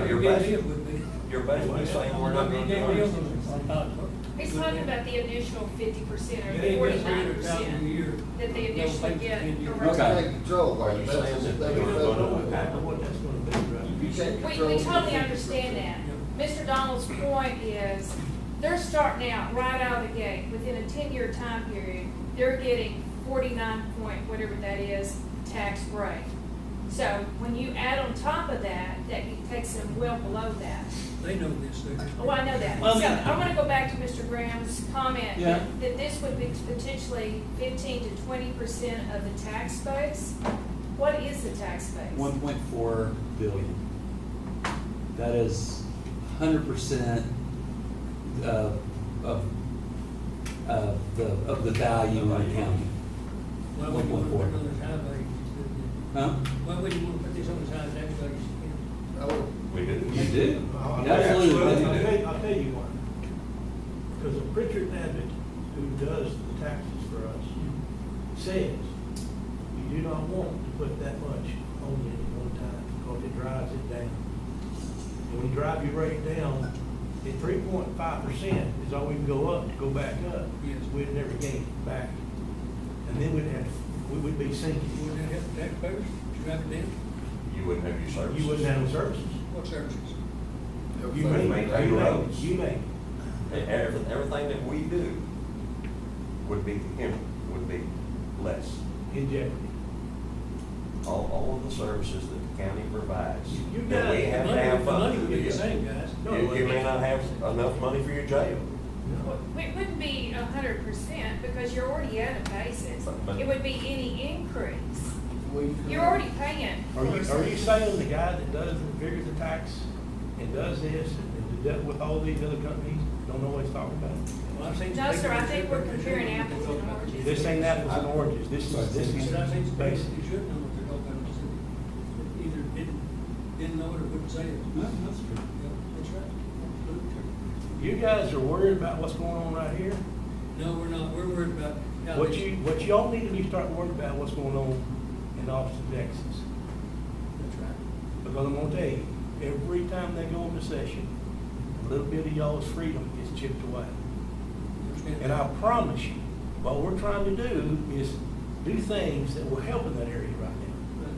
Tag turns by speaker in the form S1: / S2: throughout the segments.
S1: basi-
S2: deal would be.
S1: You're basically saying we're not gonna do
S2: Big deal
S1: ours.
S2: is a thousand.
S3: He's talking about the initial fifty percent or
S2: Yeah, they
S3: the
S2: get three
S3: forty-nine
S2: hundred thousand a year.
S3: percent that they
S2: No,
S3: initially
S2: like,
S3: get.
S2: and you-
S3: a
S4: Okay.
S3: raise.
S4: Right.
S5: Take control,
S1: Are you
S5: like, that's,
S1: saying that
S5: they
S1: they're
S5: would
S1: gonna
S5: know.
S1: vote?
S2: I know what that's gonna be, right?
S5: You take
S3: We,
S5: control.
S3: we totally understand that. Mr. Donald's point is, they're starting out right out of the gate, within a ten-year time period, they're getting forty-nine point, whatever that is, tax rate. So when you add on top of that, that takes them well below that.
S2: They know this, they.
S3: Oh, I know that.
S4: Well, I
S3: So
S4: mean-
S3: I want to go back to Mr. Graham's comment.
S4: Yeah.
S3: That this would be potentially fifteen to twenty percent of the tax base. What is the tax base?
S4: One point four billion. That is hundred percent of, of, of the, of the value in the county.
S2: Why would you want to put
S4: 1.4.
S2: it on the side values?
S4: Huh?
S2: Why would you want to put this on the side tax values?
S5: I would-
S1: We do.
S4: You do.
S6: Well,
S4: You absolutely
S6: I'll
S4: do.
S6: tell- I'll tell you why. Because of Pritchard Abbott, who does the taxes for us, says, you do not want to put that much on it at one time, because it drives it down. And when you drive your rate down, at three point five percent is all we can go up, to go back up.
S2: Yes.
S6: We'd never gain it back. And then we'd have, we would be sinking.
S2: Would that help taxpayers drive it down?
S1: You wouldn't have your services.
S6: You wouldn't have the services.
S2: What services?
S6: You
S5: Everything.
S6: make,
S1: maintain
S6: you make,
S1: roads.
S6: you make.
S1: Everything, E-, everything that we do would be, him- would be less.
S6: in jeopardy.
S1: All, all of the services that the county provides,
S6: You
S1: that
S6: guys,
S1: we have to
S2: Money-
S1: have
S2: Money
S1: funded.
S2: would be the same, guys.
S6: No, it
S1: You, you may
S6: wouldn't.
S1: not have enough money for your jail.
S3: It wouldn't be a hundred percent because you're already at a basis.
S1: But- but-
S3: It would be any increase.
S5: We-
S3: You're already paying.
S6: Are you, are you
S3: 4%.
S6: saying the guy that does, the figures the tax and does this and does that with all these other companies, don't know what he's talking about?
S2: Well, I've seen-
S3: No, sir, I think we're comparing apples and oranges.
S6: This ain't apples and oranges, this is, this
S2: It's not saying
S6: is
S2: it's
S6: basic.
S2: basic, you should know what they're talking about, it's that either didn't, didn't know it or wouldn't say it.
S4: No, that's true.
S2: Yeah, That's right.
S6: You guys are worried about what's going on right here?
S2: No, we're not, we're worried about. how
S6: What
S2: this-
S6: you, what y'all need to be starting worrying about what's going on in Austin, Texas.
S2: That's right.
S6: Because I'm gonna tell you, every time they go into session, a little bit of y'all's freedom is chipped away.
S2: Understand
S6: And
S2: that?
S6: I promise you, what we're trying to do is do things that will help in that area right now.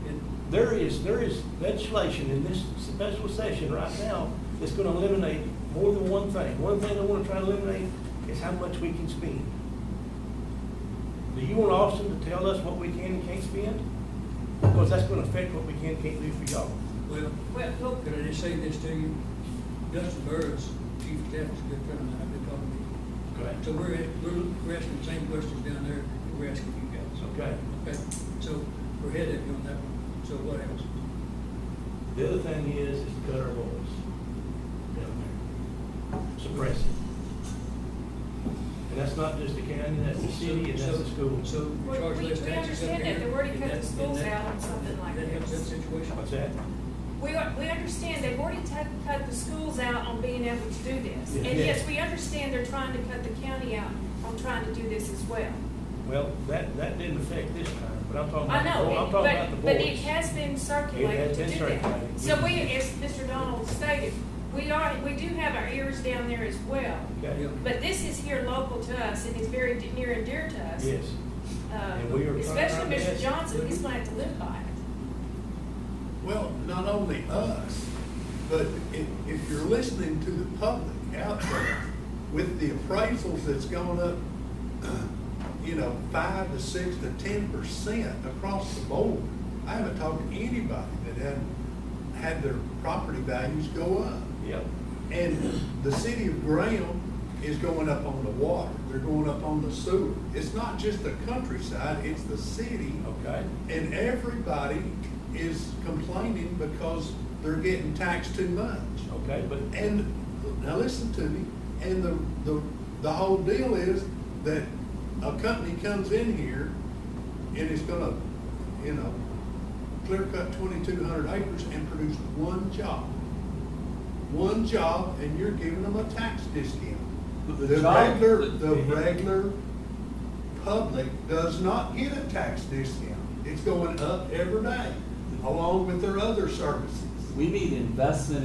S2: But it-
S6: There is, there is legislation in this special session right now that's gonna eliminate more than one thing. One thing I wanna try to eliminate is how much we can spend. Do you want Austin to tell us what we can and can't spend? Because that's gonna affect what we can and can't do for y'all.
S2: Well, well, look, can I just say this to you? Dustin Burris, Chief of Staff, is a good friend of mine, I've been talking to him. So we're, at- we're we're asking the same questions down there that we're asking you guys.
S6: Okay.
S2: Okay, so we're headed on that one, so what else?
S6: The other thing is, is to cut our voice down there, suppress it. And that's not just the county, that's the city, and that's the school.
S2: So we
S3: We-
S2: charge
S3: we-
S2: less taxes
S3: we
S2: up
S3: understand that.
S2: here,
S3: They've already
S2: and
S3: cut
S2: that-
S3: the schools
S2: and that-
S3: out on something like
S2: That helps that
S3: this.
S2: situation.
S6: What's that?
S3: We, are- we understand they've already cut, cut the schools out on being able to do this.
S6: Yeah.
S3: And yes, we understand they're trying to cut the county out on trying to do this as well.
S6: Well, that, that didn't affect this time, but I'm talking
S3: I
S6: about, the vo-
S3: know,
S6: I'm talking about the
S3: but, but it
S6: voice.
S3: has been
S6: It
S3: circulated
S6: has
S3: to
S6: been
S3: do that.
S6: circulated.
S3: So we, as Mr. Donald stated, we are, we do have our ears down there as well.
S6: Okay,
S3: But this is here local to us and it's very de- near and dear to us.
S6: yes.
S3: Uh,
S6: and we are trying our
S3: Especially Mr.
S6: best.
S3: Johnson, he's gonna have to live by it.
S7: Well, not only us, but if, if you're listening to the public out there with the appraisals that's gone up, you know, five to six to ten percent across the board, I haven't talked to anybody that hadn't had their property values go up.
S6: Yep,
S7: And the city of Graham is going up on the water, they're going up on the sewer. It's not just the countryside, it's the city.
S6: okay.
S7: And everybody is complaining because they're getting taxed too much.
S6: Okay, but
S7: And, now listen to me, and the, the, the whole deal is that a company comes in here and it's gonna, you know, clear cut twenty-two hundred acres and produce one job. One job, and you're giving them a tax discount.
S4: But the
S7: The
S4: job-
S7: regular,
S4: the-
S7: the regular public does not get a tax discount. It's going up every day, along with their other services.
S4: We need investment